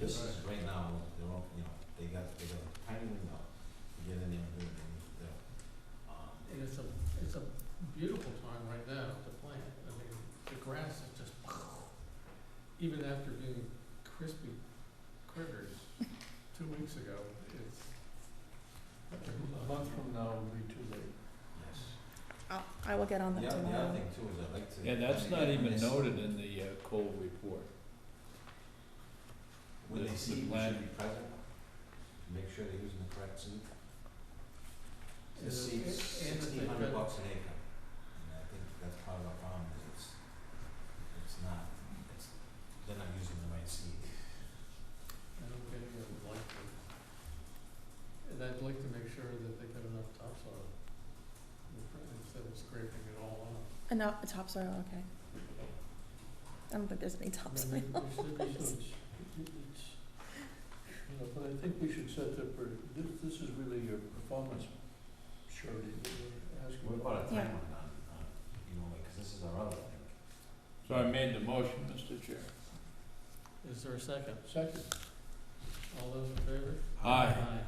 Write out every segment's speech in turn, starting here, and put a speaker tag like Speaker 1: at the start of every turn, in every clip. Speaker 1: This is right now, they're all, you know, they got, they got a tiny window to get in there and do it, and they're, um,
Speaker 2: And it's a, it's a beautiful time right now to plant. I mean, the grass is just, even after being crispy critters two weeks ago, it's. A month from now will be too late.
Speaker 1: yes.
Speaker 3: I'll- I will get on
Speaker 1: The
Speaker 3: that
Speaker 1: oth- the other
Speaker 3: tomorrow.
Speaker 1: thing too is I'd like to.
Speaker 4: Yeah, that's
Speaker 1: when they get-
Speaker 4: not
Speaker 1: when
Speaker 4: even
Speaker 1: they s-
Speaker 4: noted in the uh, Cole report.
Speaker 1: When they
Speaker 4: the-
Speaker 1: see
Speaker 4: the
Speaker 1: we
Speaker 4: plan.
Speaker 1: should be present, make sure they're using the correct seed. The
Speaker 2: And-
Speaker 1: seed's
Speaker 2: and if
Speaker 1: sixteen
Speaker 2: they've
Speaker 1: hundred
Speaker 2: been-
Speaker 1: bucks an acre, and I think that's part of our problem, is it's, it's not, it's, they're not using the right seed.
Speaker 2: I don't get any of them like them. And I'd like to make sure that they got enough topsoil in the front instead of scraping it all off.
Speaker 3: Uh, No, a topsoil, okay. I don't think there's any
Speaker 2: I
Speaker 3: topsoil.
Speaker 2: mean, there should be some, it's, you know, but I think we should set the, per- thi- this is really your performance surety that we're asking.
Speaker 1: We're about a
Speaker 3: Yeah.
Speaker 1: time on, on, on, you know, like, 'cause this is our other thing.
Speaker 4: So I made the motion, Mr. Chair.
Speaker 2: Is there a second? Second. All those in favor?
Speaker 4: Aye.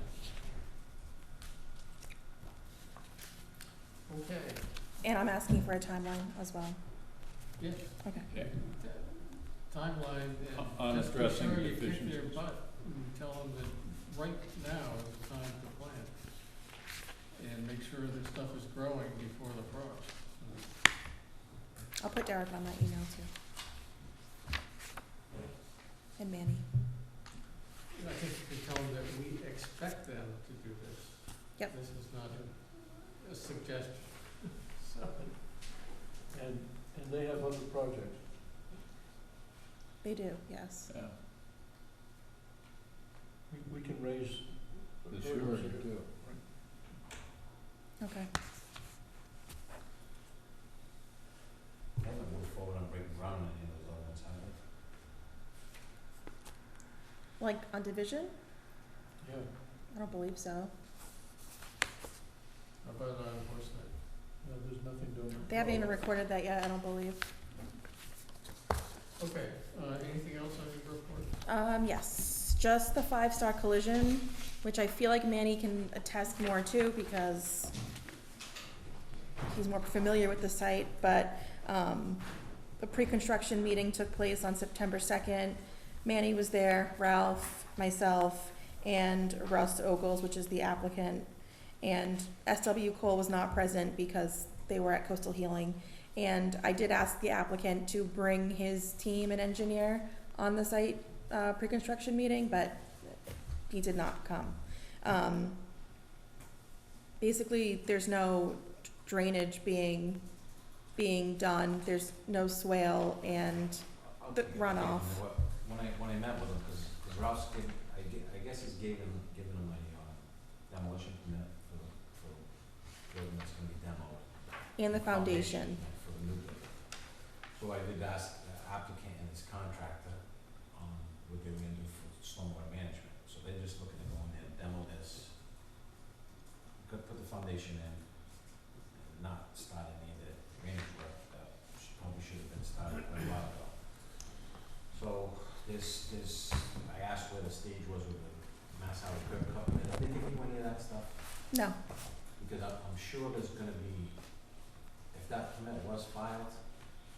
Speaker 2: Okay,
Speaker 3: And I'm asking for a timeline as well.
Speaker 2: yeah,
Speaker 3: Okay.
Speaker 4: Okay.
Speaker 2: t- timeline
Speaker 4: On
Speaker 2: and just be
Speaker 4: addressing
Speaker 2: sure you kick their
Speaker 4: deficiencies.
Speaker 2: butt and tell them that right now is the time to plant. And make sure that stuff is growing before the frost.
Speaker 3: I'll put Derek on that email too. And Manny.
Speaker 2: And I think you can tell them that we expect them to do this.
Speaker 3: Yep.
Speaker 2: This is not a, a suggestion, so. And, and they have other projects.
Speaker 3: They do, yes.
Speaker 4: Yeah,
Speaker 2: We, we can raise.
Speaker 4: The surety too.
Speaker 3: Okay.
Speaker 1: Haven't moved forward on breaking ground on any of those other ones, have they?
Speaker 3: Like on division?
Speaker 2: Yeah.
Speaker 3: I don't believe so.
Speaker 2: How about on horseback? No, there's nothing doing.
Speaker 3: They haven't even recorded that yet, I don't believe.
Speaker 2: Okay, uh, anything else on your report?
Speaker 3: Um, yes, just the five-star collision, which I feel like Manny can attest more to because he's more familiar with the site, but, um, the pre-construction meeting took place on September second. Manny was there, Ralph, myself, and Russ Ogles, which is the applicant. And SW Cole was not present because they were at Coastal Healing. And I did ask the applicant to bring his team and engineer on the site uh, pre-construction meeting, but he did not come. Um, Basically, there's no drainage being, being done, there's no swale, and,
Speaker 1: I'll
Speaker 3: The
Speaker 1: take it, I'll take it. You
Speaker 3: runoff.
Speaker 1: know what, When I, when I met with him, cause, 'cause Ralph's giv I ge- I guess he's gave him, given him a, uh, demolition permit for, the- for the building that's gonna be demoed.
Speaker 3: and the foundation.
Speaker 1: yeah, For the new building. So I did ask the applicant and his contractor, um, what they were gonna do for stormwater management, so they're just looking to go in there, demo this. Could put the foundation in, and not start any of the drainage work that sh- probably should have been started quite a while ago. So this, this, I asked where the stage was with the Mass Highway curb cut, and I didn't think any of that stuff
Speaker 3: No,
Speaker 1: because I'm, I'm sure there's gonna be, if that permit was filed,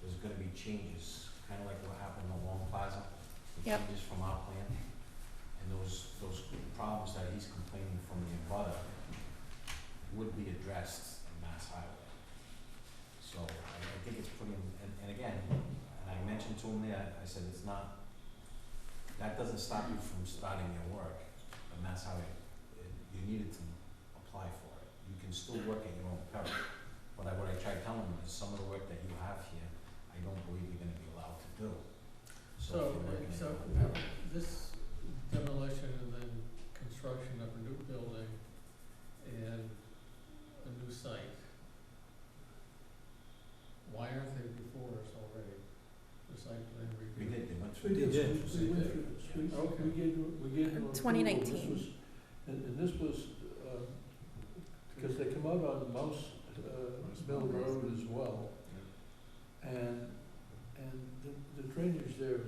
Speaker 1: there's gonna be changes, kinda like what happened in Long Plaza. the
Speaker 3: Yep.
Speaker 1: Changes from our plan, and those, those problems that he's complaining from the abutter would be addressed in Mass Highway. So I, I think it's pretty, and, and again, and I mentioned to him there, I said, it's not, that doesn't stop you from starting your work, but Mass Highway, it- you needed to apply for it. You can still work at your own peril. But I, what I tried telling him is some of the work that you have here, I don't believe you're gonna be allowed to do.
Speaker 2: So,
Speaker 1: if you're working at
Speaker 2: so uh,
Speaker 1: your own peril,
Speaker 2: this demolition and then construction of a new building and a new site. Why aren't they before us already? The site plan
Speaker 1: We
Speaker 2: review?
Speaker 1: did, they went
Speaker 2: We
Speaker 1: through.
Speaker 2: did,
Speaker 1: this,
Speaker 2: we-
Speaker 1: which is
Speaker 2: we
Speaker 1: a-
Speaker 2: went through this. We- we gave
Speaker 4: we gave
Speaker 2: him
Speaker 3: 2019.
Speaker 4: and, and this was, uh, because they come out on Mouse, uh, Mill Road as well. And, and the, the drainage there